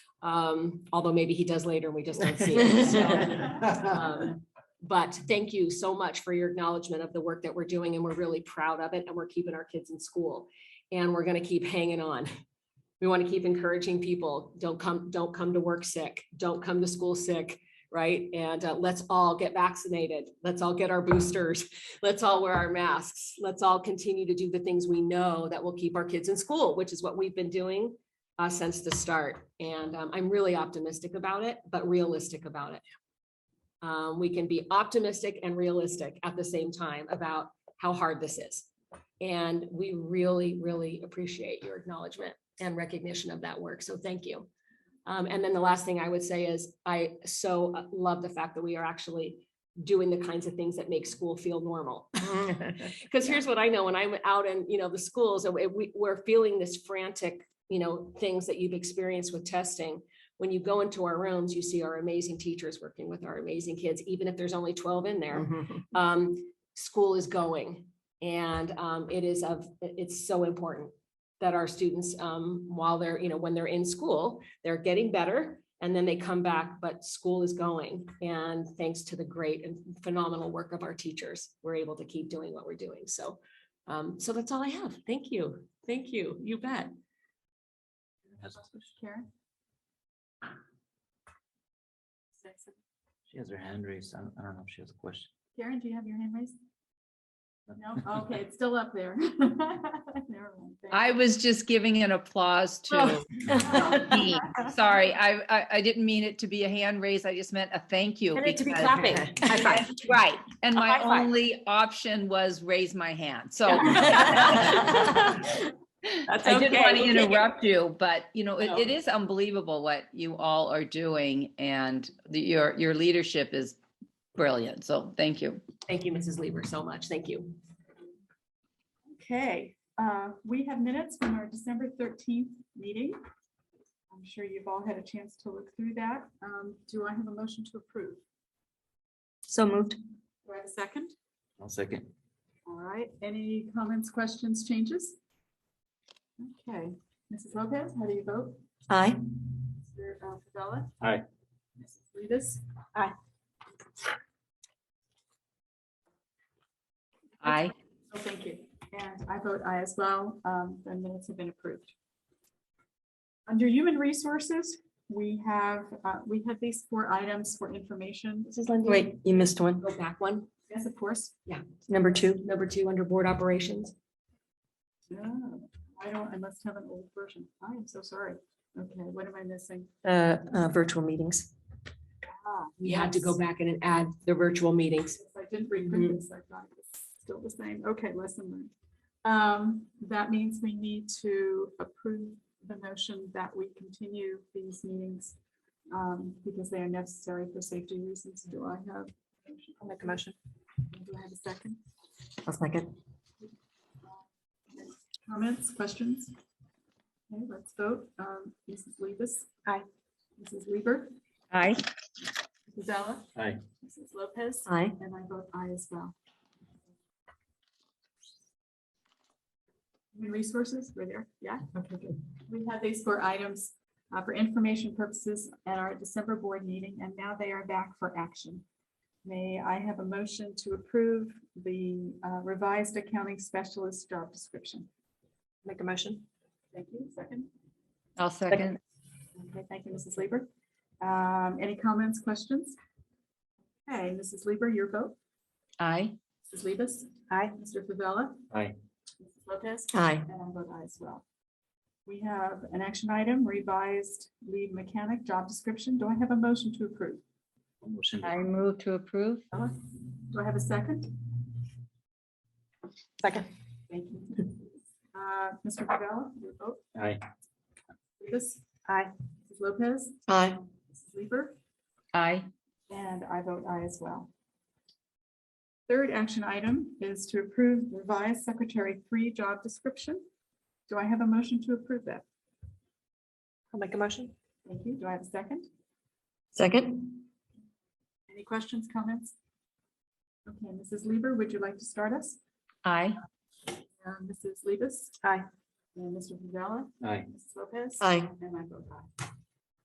Um, although maybe he does later and we just don't see it. so, um, But thank you so much for your acknowledgement of the work that we're doing and we're really proud of it and we're keeping our kids in school. And we're gonna keep hanging on. We want to keep encouraging people, don't come, don't come to work sick, don't come to school sick, right? And uh, let's all get vaccinated. Let's all get our boosters. Let's all wear our masks. Let's all continue to do the things we know that will keep our kids in school, which is what we've been doing uh, since the start. And um, I'm really optimistic about it, but realistic about it. Um, we can be optimistic and realistic at the same time about how hard this is. And we really, really appreciate your acknowledgement and recognition of that work. So thank you. Um, and then the last thing I would say is I so uh, love the fact that we are actually doing the kinds of things that make school feel normal. Because here's what I know when I'm out in, you know, the schools, and we- we, we're feeling this frantic, you know, things that you've experienced with testing. When you go into our rooms, you see our amazing teachers working with our amazing kids, even if there's only twelve in there um, school is going. And um, it is of, it's so important that our students, um, while they're, you know, when they're in school, they're getting better and then they come back, but school is going. And thanks to the great and phenomenal work of our teachers, we're able to keep doing what we're doing. So, um, so that's all I have. Thank you. Thank you. You bet. Karen? She has her hand raised. I don't, I don't know if she has a question. Karen, do you have your hand raised? No, okay, it's still up there. I was just giving an applause to Oh. me. Sorry, I, I, I didn't mean it to be a hand raise. I just meant a thank you. And it to be because- clapping. High five. Right, and A my high five. only option was raise my hand, so. That's I okay. didn't want to We'll take it. interrupt you, but you know, No. it, it is unbelievable what you all are doing and the- your, your leadership is brilliant, so thank you. Thank you, Mrs. Lieber, so much. Thank you. Okay, uh, we have minutes from our December thirteenth meeting. I'm sure you've all had a chance to look through that. Um, do I have a motion to approve? So moved. Do I have a second? One second. All right, any comments, questions, changes? Okay, Mrs. Lopez, how do you vote? uh, Aye. Mr. Favela? Aye. Mrs. Rivas? Aye. I, Oh, thank you. And I vote aye as well. Um, The minutes have been approved. Under Human Resources, we have, uh, we have these four items for information. Mrs. Lindy. Wait, you missed one. Go Oh, back one. Yes, of course. Number two. Number two, under board operations. Oh, I don't, I must have an old version. I am so sorry. Okay, what am I missing? Uh, uh, virtual meetings. Ah, We had to go yes. back in and add the virtual meetings. Since I didn't reprint this, I thought it was still the same. Okay, lesson learned. Um, that means we need to approve the notion that we continue these meetings um, because they are necessary for safety reasons. Do I have? I'll make a motion. Do I have a second? I'll second. Comments, questions? Okay, let's vote. Um, Mrs. Libis? Aye. Mrs. Lieber? I. Mrs. Ella? Aye. Mrs. Lopez? Aye. And I vote aye as well. Human resources, we're there, yeah? Okay, good. We have these four items uh, for information purposes at our December board meeting, and now they are back for action. May I have a motion to approve the uh, revised accounting specialist job description? Make a motion. Thank you, second. I'll second. Okay, thank you, Mrs. Lieber. Um, Any comments, questions? Okay, Mrs. Lieber, your vote? I. Mrs. Libis? Aye. Mr. Favela? Aye. Mrs. Lopez? Aye. And I vote aye as well. We have an action item, revised lead mechanic job description. Do I have a motion to approve? Motion. I move to approve. Ella? Do I have a second? Second. Thank you. Uh, Mr. Favela, your vote? Aye. Libis? Aye. Mrs. Lopez? Aye. Mrs. Lieber? I. And I vote aye as well. Third action item is to approve revised secretary three job description. Do I have a motion to approve that? I'll make a motion. Thank you. Do I have a second? Second. Any questions, comments? Okay, Mrs. Lieber, would you like to start us? I. Uh, Mrs. Libis? Aye. And Mr. Favela? Aye. Mrs. Lopez? Aye. And I vote aye.